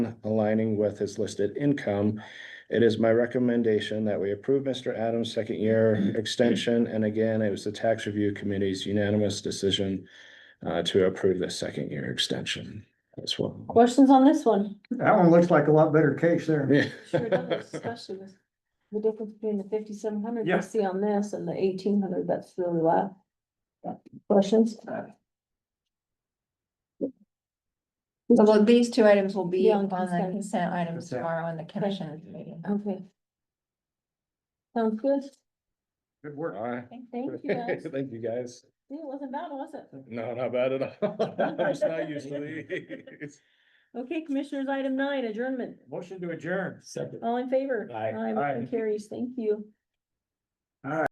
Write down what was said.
aligning with his listed income. It is my recommendation that we approve Mr. Adams' second year extension, and again, it was the tax review committee's unanimous decision uh, to approve this second year extension as well. Questions on this one? That one looks like a lot better case there. Yeah. Sure does, especially with the difference between the fifty-seven hundred Yeah. you see on this and the eighteen hundred, that's really loud. Questions? So well, these two items will be Be on on the consent. consent items Consent. tomorrow on the commission meeting. Okay. Sounds good. Good work. All right. Thank you guys. Thank you, guys. Yeah, It wasn't bad, was it? No, not bad at all. I'm just not used to these. Okay, commissioners, item nine, adjournment. Motion to adjourn. Second. All in favor? Aye. Aye, motion Aye. carries. Thank you.